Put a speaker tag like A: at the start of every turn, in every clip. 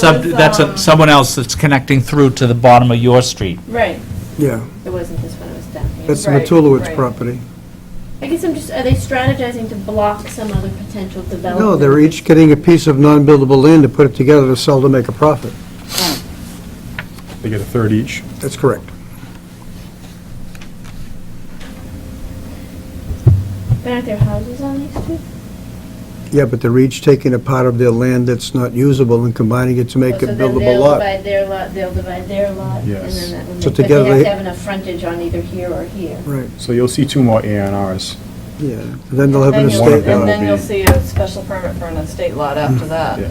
A: Sub-
B: was,
A: That's a-
B: um,
A: someone else that's connecting through to the bottom of your street.
B: Right,
C: Yeah,
D: It wasn't this one, it was down here.
C: that's the
B: Right,
C: Matulowicz
B: right.
C: property.
D: I guess I'm just, are they strategizing to block some other potential development?
C: No, they're each getting a piece of non-buildable land to put it together to sell to make a profit.
E: They get a third each.
C: That's correct.
D: But aren't there houses on these two?
C: Yeah, but they're each taking a part of their land that's not usable and combining it to make a
D: Oh, So then
C: buildable
D: they'll
C: lot.
D: divide their lot, they'll divide their lot, and
E: Yes.
D: then that one.
C: So
D: but they
C: together
D: have
C: they-
D: to have enough frontage on either here or here.
C: Right,
E: So you'll see two more A and Rs.
C: yeah. And Then they'll have an
B: Then you'll-
C: estate
E: that
B: And
C: lot.
E: will
B: then you'll
E: be-
B: see a special permit for an estate lot after that.
E: Yeah.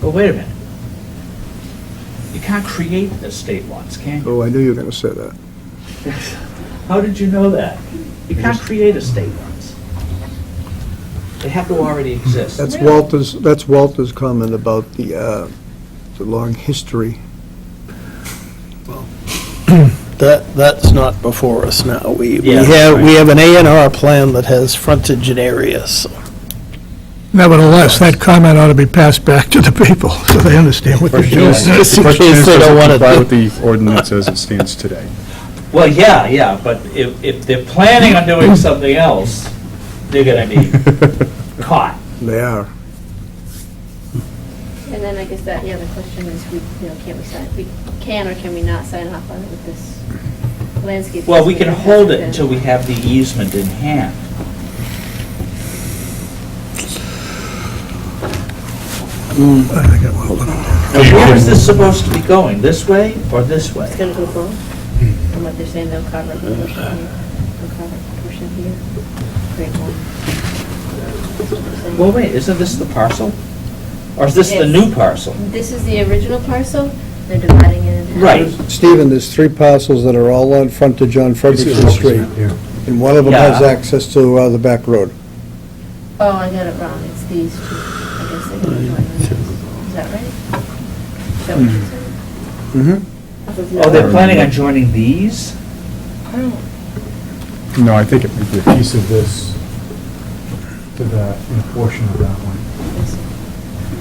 A: But wait a minute. You can't create estate lots, can you?
C: Oh, I knew you were going to say that.
A: How did you know that? You can't create estate lots. They have to already exist.
C: That's Walter's, that's Walter's comment about the, uh, the long history.
F: That, that's not before us now. We, we
A: Yeah,
F: have, we
A: right.
F: have an A and R plan that has frontage and areas.
G: Nevertheless, that comment ought to be passed back to the people, so they understand what they're
E: Question
G: doing.
E: is- the
F: Just in
E: question
F: case
E: is,
F: they
E: does it
F: don't wanna
E: Comply
F: do-
E: with the ordinance as it stands today.
A: Well, yeah, yeah, but if, if they're planning on doing something else, they're gonna be caught.
C: They are.
D: And then I guess that, yeah, the question is, we, you know, can we sign, we can or can we not sign off on it with this landscape?
A: Well, we can
D: easement
A: hold it
D: that-
A: until we have the easement in hand. Now, where is this supposed to be going? This way or this way?
D: It's gonna go both, and what they're saying, they'll cover a portion here, they'll cover a portion here, create one.
A: Well, wait, isn't this the parcel? Or is this the
D: Yes.
A: new parcel?
D: This is the original parcel, they're dividing it in half.
A: Right.
C: Stephen, there's three parcels that are all on frontage on Ferguson Street, and one of them has
A: Yeah.
C: access to uh, the back road.
D: Oh, I got it wrong, it's these two, I guess they can join them. Is that right? Is that what you said?
C: Mm-hmm.
A: Oh, they're planning on joining these?
E: No, I think it might be a piece of this.
H: to that, in a portion of that one.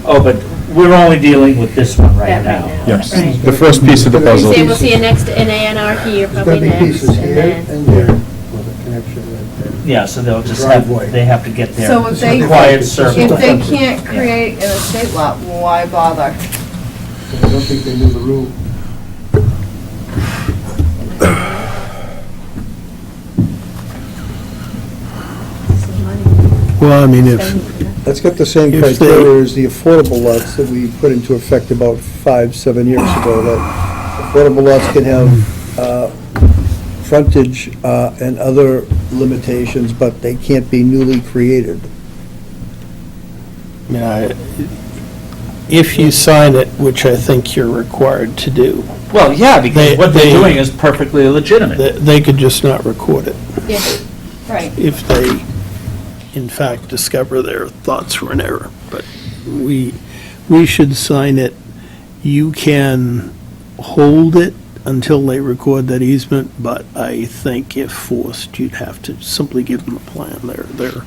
A: Oh, but we're only dealing with this one right
D: That
A: now.
D: right now.
E: Yes,
D: Right.
E: the first piece of the
D: You
E: puzzle.
D: say we'll see a next, an A and R here, probably next, and then,
C: there,
H: with a connection right there.
A: Yeah, so they'll just have,
H: Driveway.
A: they have to get their
B: So if they-
A: required service.
B: If they can't create an estate lot, why
H: I
B: bother?
H: don't think they knew the rule.
D: this is money.
F: Well, I mean, if,
D: spending for that.
C: That's got the same
F: If they-
C: criteria as the affordable lots that we put into effect about five, seven years ago, that affordable lots can have uh, frontage uh, and other limitations, but they can't be newly created.
F: I mean, I- if you sign it, which I think you're required to do,
A: Well, yeah, because
F: They-
A: what they're
F: they-
A: doing is perfectly legitimate.
F: they, they could just not record it
B: Right.
F: if they, in fact, discover their thoughts were an error. But we, we should sign it. You can hold it until they record that easement, but I think if forced, you'd have to simply give them a plan. They're, they're,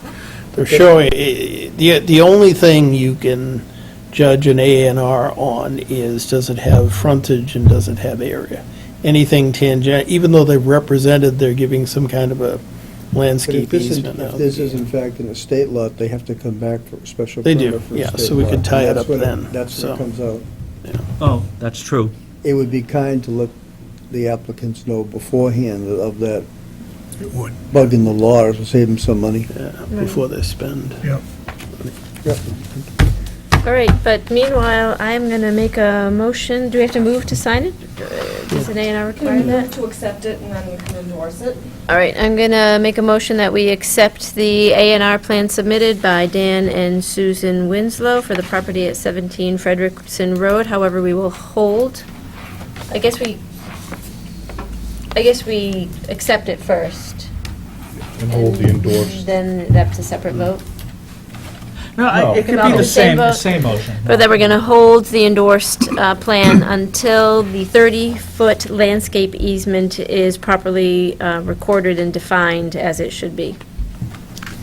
F: they're showing, eh, the, the only thing you can judge an A and R on is, does it have frontage and does it have area? Anything tangent, even though they've represented, they're giving some kind of a
C: But if
F: landscape
C: this is,
F: easement.
C: if
F: out.
C: this is in fact an estate lot, they have to come back for a special
F: They
C: permit.
F: do,
C: for a
F: yeah,
C: state
F: so we
C: lot,
F: could
C: and
F: tie it
C: that's
F: up
C: when-
F: then,
C: That's when
F: so.
C: it comes out.
A: Oh, that's true.
C: It would be kind to let the applicants know beforehand of that bug in the law, it would save them some money.
F: Yeah, uh, Before they spend.
D: All right, but meanwhile, I'm going to make a motion. Do we have to move to sign it? Uh, Does an A and R require that?
B: To accept it and then you can endorse it.
D: All right, I'm going to make a motion that we accept the A and R plan submitted by Dan and Susan Winslow for the property at 17 Frederickson Road. However, we will hold, I guess we, I guess we accept it first.
E: And hold the endorsed.
D: Then that's a separate vote.
A: No, it could be the same, the same motion.
D: Or that we're going to hold the endorsed uh, plan until the 30-foot landscape easement is properly uh, recorded and defined as it should be.